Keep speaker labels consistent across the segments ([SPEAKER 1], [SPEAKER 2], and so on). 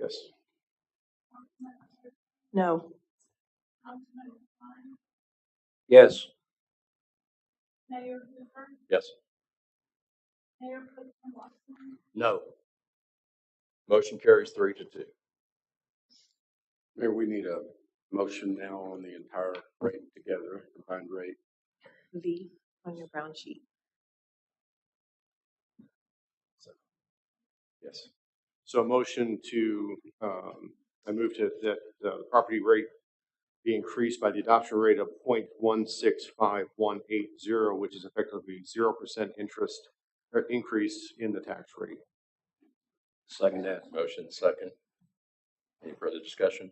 [SPEAKER 1] Yes.
[SPEAKER 2] No.
[SPEAKER 1] Yes. Yes. No. Motion carries three to two.
[SPEAKER 3] Mayor, we need a motion now on the entire rate together, combined rate.
[SPEAKER 2] V on your brown sheet.
[SPEAKER 3] Yes. So a motion to, um, I move to, that the property rate be increased by the adoption rate of point one six five one eight zero, which is effectively zero percent interest or increase in the tax rate.
[SPEAKER 1] Second that. Motion second. Any further discussion?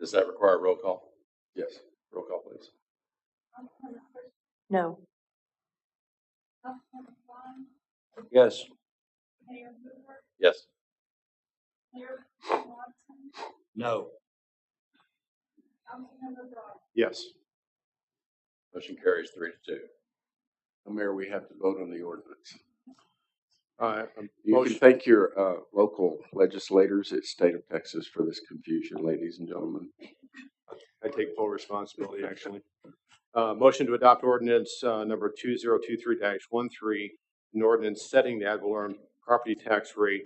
[SPEAKER 1] Does that require a roll call?
[SPEAKER 3] Yes.
[SPEAKER 1] Roll call, please.
[SPEAKER 2] No.
[SPEAKER 1] Yes. Yes. No.
[SPEAKER 3] Yes.
[SPEAKER 1] Motion carries three to two.
[SPEAKER 3] Mayor, we have to vote on the ordinance. Uh,
[SPEAKER 4] You can
[SPEAKER 3] motion,
[SPEAKER 4] thank your uh, local legislators at State of Texas for this confusion, ladies and gentlemen.
[SPEAKER 3] I take full responsibility, actually. Uh, motion to adopt ordinance, uh, number two zero two three dash one three, an ordinance setting the ad valorem property tax rate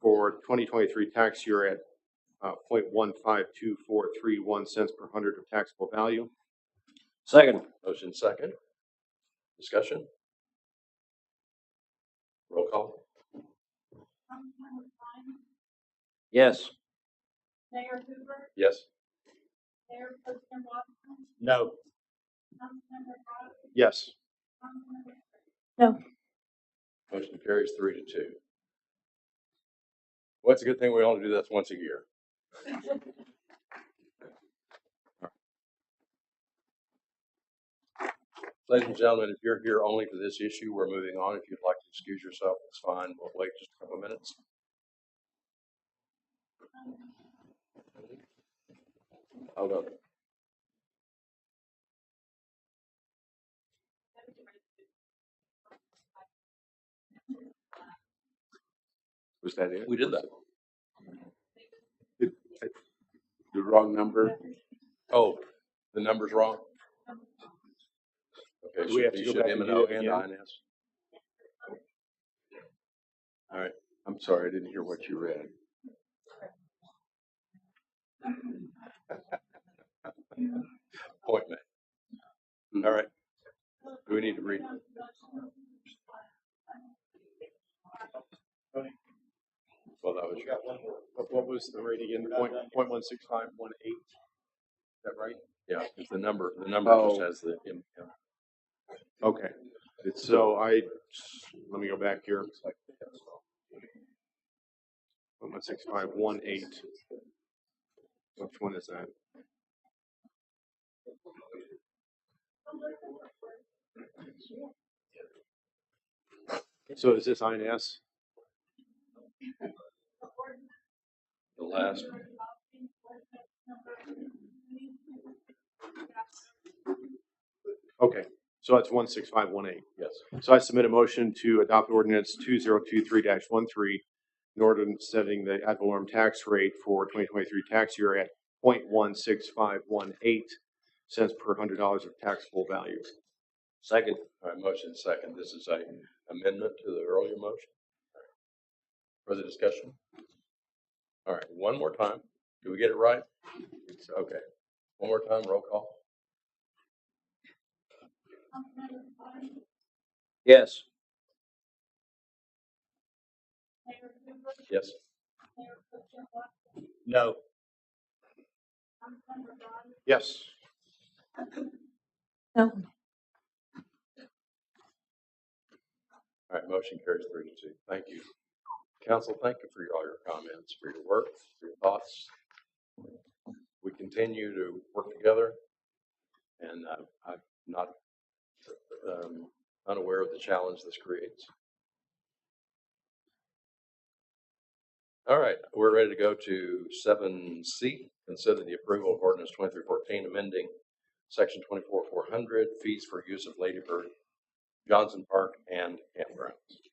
[SPEAKER 3] for twenty twenty-three tax year at, uh, point one five two four three one cents per hundred of taxable value.
[SPEAKER 1] Second. Motion second. Discussion? Roll call? Yes.
[SPEAKER 5] Mayor Hoover,
[SPEAKER 1] Yes.
[SPEAKER 5] Mayor Pro Tem Watson,
[SPEAKER 1] No.
[SPEAKER 5] Councilmember Rogers,
[SPEAKER 3] Yes.
[SPEAKER 5] Councilmember
[SPEAKER 1] Motion carries three to two. Well, it's a good thing we only do this once a year. Ladies and gentlemen, if you're here only for this issue, we're moving on. If you'd like to excuse yourself, it's fine. We'll wait just a couple of minutes. Hold on.
[SPEAKER 4] Was that it?
[SPEAKER 1] We did that.
[SPEAKER 4] The wrong number?
[SPEAKER 1] Oh, the number's wrong? Okay,
[SPEAKER 3] Do we
[SPEAKER 1] should
[SPEAKER 3] have
[SPEAKER 1] be,
[SPEAKER 3] to go
[SPEAKER 1] should
[SPEAKER 3] back
[SPEAKER 1] M and
[SPEAKER 3] and do
[SPEAKER 1] O
[SPEAKER 3] it
[SPEAKER 1] and
[SPEAKER 3] again?
[SPEAKER 1] INS? All right,
[SPEAKER 4] I'm sorry, I didn't hear what you read.
[SPEAKER 1] appointment.
[SPEAKER 3] Hmm.
[SPEAKER 1] All right. Do we need to read? Well, that was your,
[SPEAKER 3] What, what was the rate again? Point, point one six five one eight? Is that right?
[SPEAKER 1] yeah, it's the number, the number just
[SPEAKER 3] Oh.
[SPEAKER 1] has the, M- yeah.
[SPEAKER 3] Okay. So I, let me go back here. One six five one eight. Which one is that? So is this INS?
[SPEAKER 1] the last,
[SPEAKER 3] Okay, so that's one six five one eight.
[SPEAKER 1] yes.
[SPEAKER 3] So I submit a motion to adopt ordinance two zero two three 13 an ordinance setting the ad valorem tax rate for twenty twenty-three tax year at 0.16518 cents per hundred dollars of taxable value.
[SPEAKER 1] Second. All right, motion second. This is a amendment to the earlier motion. Further discussion? All right, one more time. Do we get it right? It's okay. One more time, roll call.
[SPEAKER 5] Councilmember Rogers,
[SPEAKER 1] Yes.
[SPEAKER 5] Mayor Hoover,
[SPEAKER 1] Yes.
[SPEAKER 5] Mayor Pro Tem Watson,
[SPEAKER 1] No.
[SPEAKER 5] Councilmember Rogers,
[SPEAKER 3] Yes.
[SPEAKER 2] No.
[SPEAKER 1] All right, motion carries three to two. Thank you. Council, thank you for your- all your comments, for your work, for your thoughts. We continue to work together, and uh, I'm not um, unaware of the challenge this creates. All right, we're ready to go to seven C, consider the approval of ordinance twenty-three fourteen, amending section twenty-four four hundred, fees for use of Lady Bird Johnson Park and campgrounds.